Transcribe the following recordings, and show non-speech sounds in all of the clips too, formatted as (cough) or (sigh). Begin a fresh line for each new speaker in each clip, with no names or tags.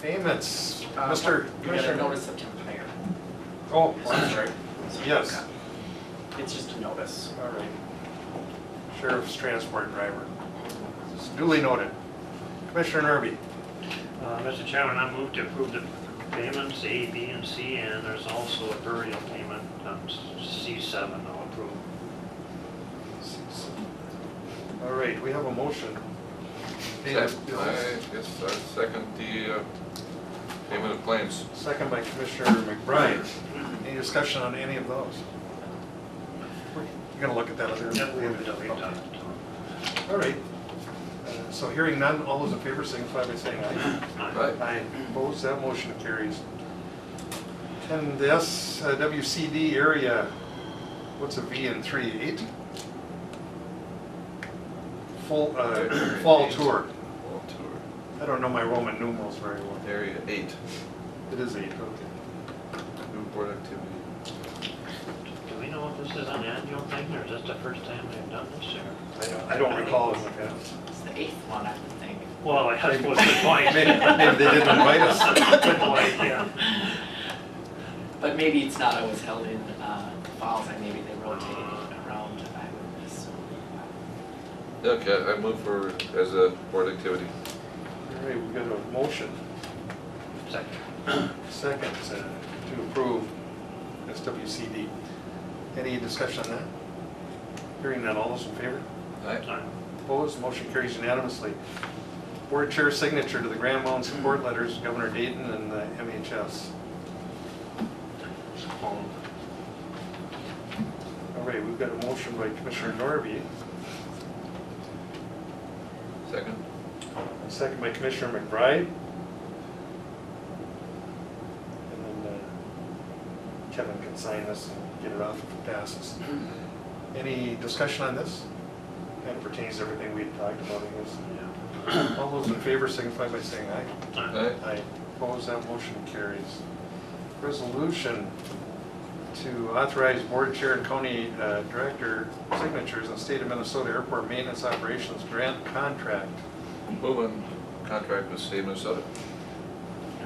Payments,
Uh,
Mr.
You gotta
Commissioner.
notice the temp
Oh,
I'm sorry.
Yes.
It's just a notice.
all right. Sheriff's transport driver. This is Duly noted. Commissioner Nerby,
Uh, Mr. Chairman, I move to approve the payments A, B, and C, and there's also a burial payment um, on C7 I'll approve.
all right, we have a motion. Pay the
Second,
bills.
I guess I second the uh, payment of claims.
Second by Commissioner McBride. Any discussion on any of those? We're gonna look at that later.
Yep, we have it up, we've done it.
All right. Uh, So hearing none, all those in favor signify by saying aye.
Aye.
Right?
Aye. Opposed, that motion carries. And the S, uh, WCD area, what's a V in three, eight? Full, (clears throat) uh, fall tour.
All to
I don't know my Roman numerals very well.
Area eight,
It is eight, okay.
new board activity.
Do we know if this is an annual thing, or is this the first time they've done this, or?
I don't- I don't recall in the past.
It's the eighth one, I would think.
Well, I suppose the point.
Maybe maybe they didn't invite us. (laughs)
Good point, yeah.
But maybe it's not always held in uh, Falls, and maybe they rotate it around, I would assume.
Okay, I move for, as a board activity.
All right, we got a motion.
Second.
Second, uh, to approve SWCD. Any discussion on that? Hearing none, all those in favor?
Aye.
Aye.
Opposed, motion carries unanimously. Board Chair signature to the Grand Mound support letters, Governor Dayton and the MHS.
All-
All right, we've got a motion by Commissioner Norby,
Second?
a second by Commissioner McBride. And then uh, Kevin can sign this and get it off if it passes. Any discussion on this? Kind of pertains to everything we had talked about, I guess.
yeah.
All those in favor signify by saying aye.
Aye.
Aye.
Aye. Opposed, that motion carries. Resolution to authorize board chair and county uh, director signatures on state of Minnesota airport maintenance operations grant contract.
Move on contract with State of Minnesota.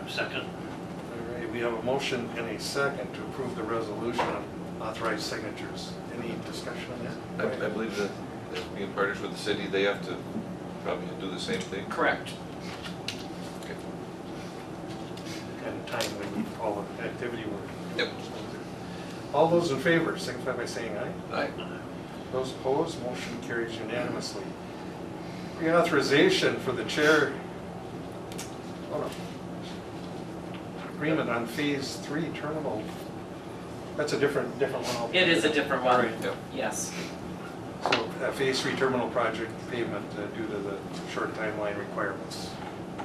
Second.
All right, we have a motion and a second to approve the resolution on authorized signatures. Any discussion on
I, I
that?
believe that as being partners with the city, they have to probably do the same thing.
Correct.
Okay.
Kind of timely with all the activity we're.
Yep.
All those in favor signify by saying aye.
Aye.
Those opposed, motion carries unanimously. Reauthorization for the chair. hold on. Agreement on phase three terminal. That's a different, different one.
It is a different one,
Yep.
yes.
So uh, phase three terminal project pavement uh, due to the short timeline requirements.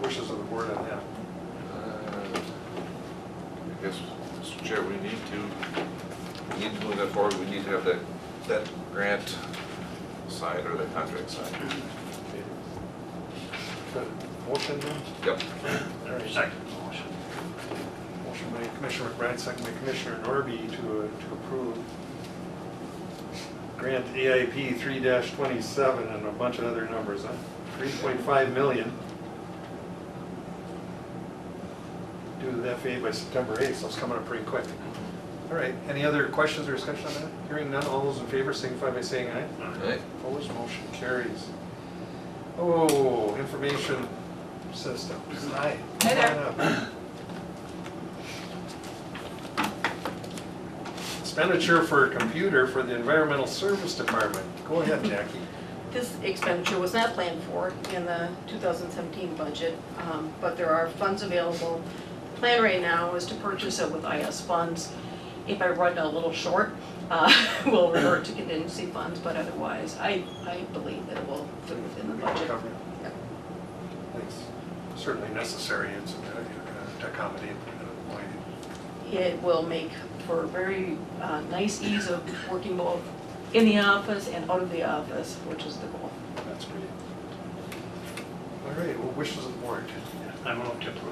Wishes of the board on that.
Uh, I guess, Mr. Chair, we need to, we need to move that forward, we need to have that, that grant signed or that contract signed.
Good. Motion, then?
Yep.
Second motion.
motion by Commissioner McBride, second by Commissioner Norby to, uh, to approve grant AIP three twenty-seven and a bunch of other numbers, huh? Three point five million. Due to the FAA by September eighth, so it's coming up pretty quick. All right, any other questions or discussion on that? Hearing none, all those in favor signify by saying aye.
Aye.
Aye.
Opposed, motion carries. Oh, information system. Hi.
Hi there.
Come on up. Expenditure for a computer for the Environmental Service Department. Go
(laughs)
ahead, Jackie.
This expenditure was not planned for in the 2017 budget, um, but there are funds available. The Plan right now is to purchase it with IS funds. If I run a little short, uh, (laughs) we'll revert to contingency funds, but otherwise, I, I believe that it will fit within the
We can
budget.
cover it. It's certainly necessary. It's uh, to accommodate uh, why
It will make for very uh, nice ease of working both in the office and out of the office, which is the goal.
that's great. All right, well, wishes of the board.
I move to approve.